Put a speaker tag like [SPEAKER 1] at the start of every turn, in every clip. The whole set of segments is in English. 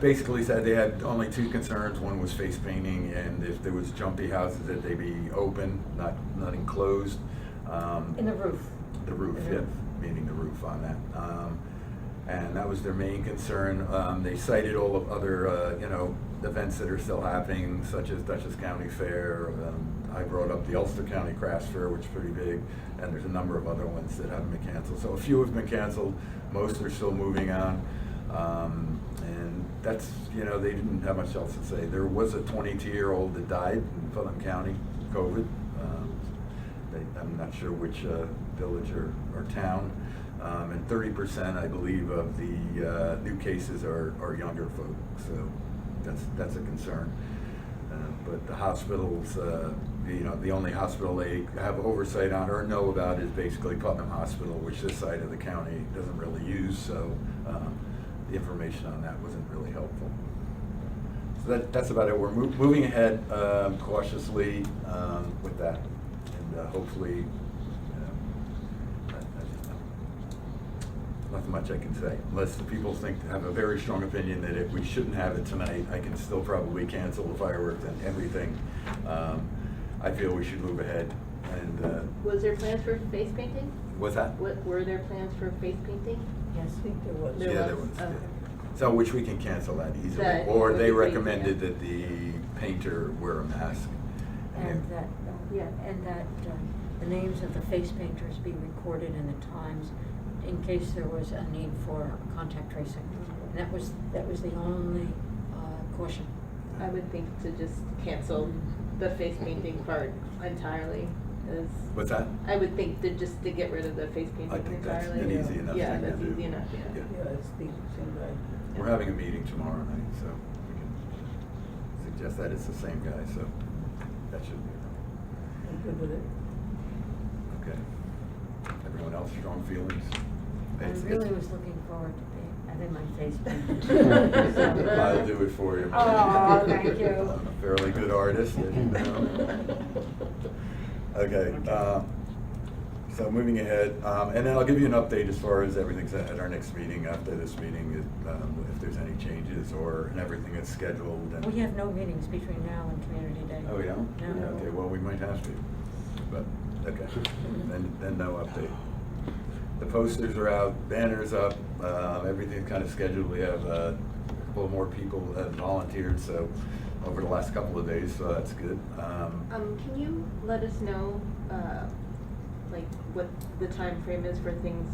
[SPEAKER 1] basically said they had only two concerns. One was face painting, and if there was jumpy houses, that they be open, not, not enclosed. Um,
[SPEAKER 2] In the roof.
[SPEAKER 1] The roof,
[SPEAKER 2] The
[SPEAKER 1] yeah,
[SPEAKER 2] roof.
[SPEAKER 1] meaning the roof on that. Um, And that was their main concern. Um, They cited all of other, uh, you know, events that are still happening, such as Dutchess County Fair. Um, I brought up the Ulster County Craft Fair, which is pretty big, and there's a number of other ones that haven't been canceled. So a few have been canceled, most are still moving on. Um, And that's, you know, they didn't have much else to say. There was a 22-year-old that died in Putnam County, COVID. Um, they- I'm not sure which uh, village or, or town. Um, And thirty percent, I believe, of the uh, new cases are, are younger folk, so that's, that's a concern. Uh, But the hospitals, uh, you know, the only hospital they have oversight on or know about is basically Putnam Hospital, which this side of the county doesn't really use, so um, the information on that wasn't really helpful. So that, that's about it. We're mov- moving ahead um, cautiously um, with that, and uh, hopefully, you know, I- I just- nothing much I can say. Unless the people think, have a very strong opinion that if we shouldn't have it tonight, I can still probably cancel the fireworks and everything. Um, I feel we should move ahead, and uh,
[SPEAKER 3] Was there plans for face painting?
[SPEAKER 1] with that.
[SPEAKER 3] What, were there plans for face painting?
[SPEAKER 2] Yes, I think there was.
[SPEAKER 3] There
[SPEAKER 1] Yeah, there
[SPEAKER 3] was?
[SPEAKER 1] was, yeah.
[SPEAKER 3] Okay.
[SPEAKER 1] So, which we can cancel that easily,
[SPEAKER 3] That-
[SPEAKER 1] or they
[SPEAKER 3] the painter.
[SPEAKER 1] recommended that the painter wear a mask.
[SPEAKER 4] And
[SPEAKER 1] yeah.
[SPEAKER 4] that, uh, yeah, and that um, the names of the face painters be recorded in the Times in case there was a need for contact tracing. And that was, that was the only uh, caution.
[SPEAKER 3] I would think to just cancel the face painting part entirely is.
[SPEAKER 1] What's that?
[SPEAKER 3] I would think to just to get rid of the face painting
[SPEAKER 1] I
[SPEAKER 3] entirely.
[SPEAKER 1] think that's an easy enough
[SPEAKER 3] Yeah,
[SPEAKER 1] thing to
[SPEAKER 3] that's
[SPEAKER 1] do.
[SPEAKER 3] easy enough, yeah.
[SPEAKER 2] Yeah, it's the same guy.
[SPEAKER 1] We're having a meeting tomorrow night, so we can suggest that it's the same guy, so that should be enough.
[SPEAKER 2] I'm good with it.
[SPEAKER 1] Okay. Everyone else, strong feelings?
[SPEAKER 4] I
[SPEAKER 1] It's-
[SPEAKER 4] really
[SPEAKER 1] it's-
[SPEAKER 4] was looking forward to being, having my face painted. So-
[SPEAKER 1] I'll do it for you.
[SPEAKER 2] Aw, Oh, thank you.
[SPEAKER 1] I'm a fairly good artist, as you know. Okay, um, so moving ahead, um, and then I'll give you an update as far as everything's at at our next meeting, after this meeting, if, um, if there's any changes or, and everything is scheduled and.
[SPEAKER 4] We have no meetings between now and Community Day.
[SPEAKER 1] Oh, yeah?
[SPEAKER 4] No.
[SPEAKER 1] Okay, well, we might have to, but, okay, then, then no update. The posters are out, banners up, uh, everything's kind of scheduled, we have, uh, a couple more people have volunteered, so, over the last couple of days, so that's good. Um,
[SPEAKER 3] Um, can you let us know, uh, like what the time frame is for things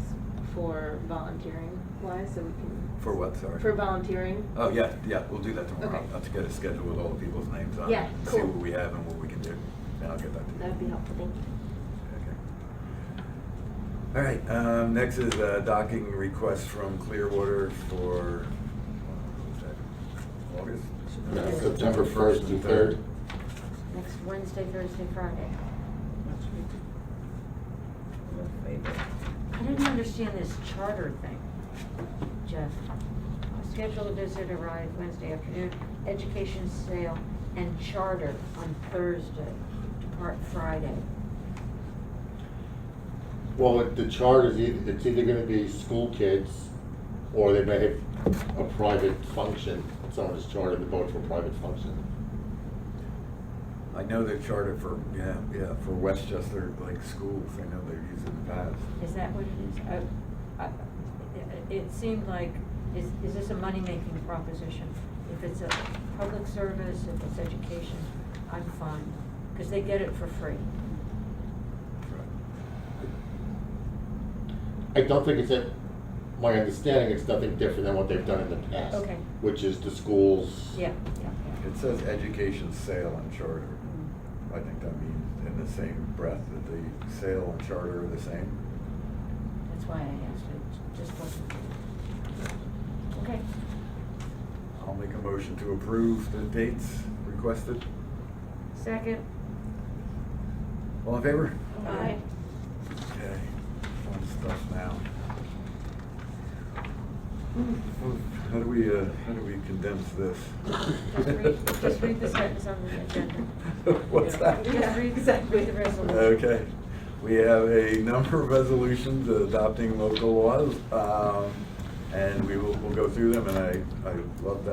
[SPEAKER 3] for volunteering wise, so we can.
[SPEAKER 1] For what, sorry?
[SPEAKER 3] For volunteering.
[SPEAKER 1] Oh, yeah, yeah, we'll do that tomorrow.
[SPEAKER 3] Okay.
[SPEAKER 1] I'll get a schedule with all the people's names on it.
[SPEAKER 3] Yeah,
[SPEAKER 1] See
[SPEAKER 3] cool.
[SPEAKER 1] what we have and what we can do, and I'll get that to you.
[SPEAKER 3] That would be helpful, thank you.
[SPEAKER 1] Okay. All right, um, next is a docking request from Clearwater for, uh, what was that,
[SPEAKER 4] Yeah,
[SPEAKER 1] August?
[SPEAKER 5] September 1st and 3rd.
[SPEAKER 4] Next Wednesday, Thursday, Friday.
[SPEAKER 2] That's good. I'm in favor.
[SPEAKER 4] I didn't understand this charter thing, Jeff. Schedule a visitor arrive Wednesday afternoon, education sale and charter on Thursday, depart Friday.
[SPEAKER 5] Well, it- the charter is either, it's either gonna be school kids, or they may have a private function. Someone has chartered the boat for a private function.
[SPEAKER 1] I know they're chartered for, yeah, yeah, for Westchester, like, schools, I know they're using the paths.
[SPEAKER 4] Is that what it is? I- I- Uh, it- It seemed like, is, is this a money-making proposition? If it's a public service, if it's education, I'm fine, because they get it for free.
[SPEAKER 5] I don't think it's, a- my understanding, it's nothing different than what they've done in the past.
[SPEAKER 4] Okay.
[SPEAKER 5] Which is the schools.
[SPEAKER 4] Yeah, yeah,
[SPEAKER 1] It says education sale and charter.
[SPEAKER 4] yeah.
[SPEAKER 2] Mm.
[SPEAKER 1] I think that means in the same breath that the sale and charter are the same.
[SPEAKER 4] That's why I asked it, just wasn't. Okay.
[SPEAKER 1] I'll make a motion to approve the dates requested.
[SPEAKER 4] Second.
[SPEAKER 1] All in favor?
[SPEAKER 4] Aye.
[SPEAKER 1] Okay, fun stuff now. How do we, uh, how do we condense this?
[SPEAKER 4] Just read- just read the sentence on the agenda.
[SPEAKER 1] What's that?
[SPEAKER 4] Just read exactly the resolution.
[SPEAKER 1] Okay, we have a number of resolutions adopting local laws, um, and we will, we'll go through them, and I, I love that.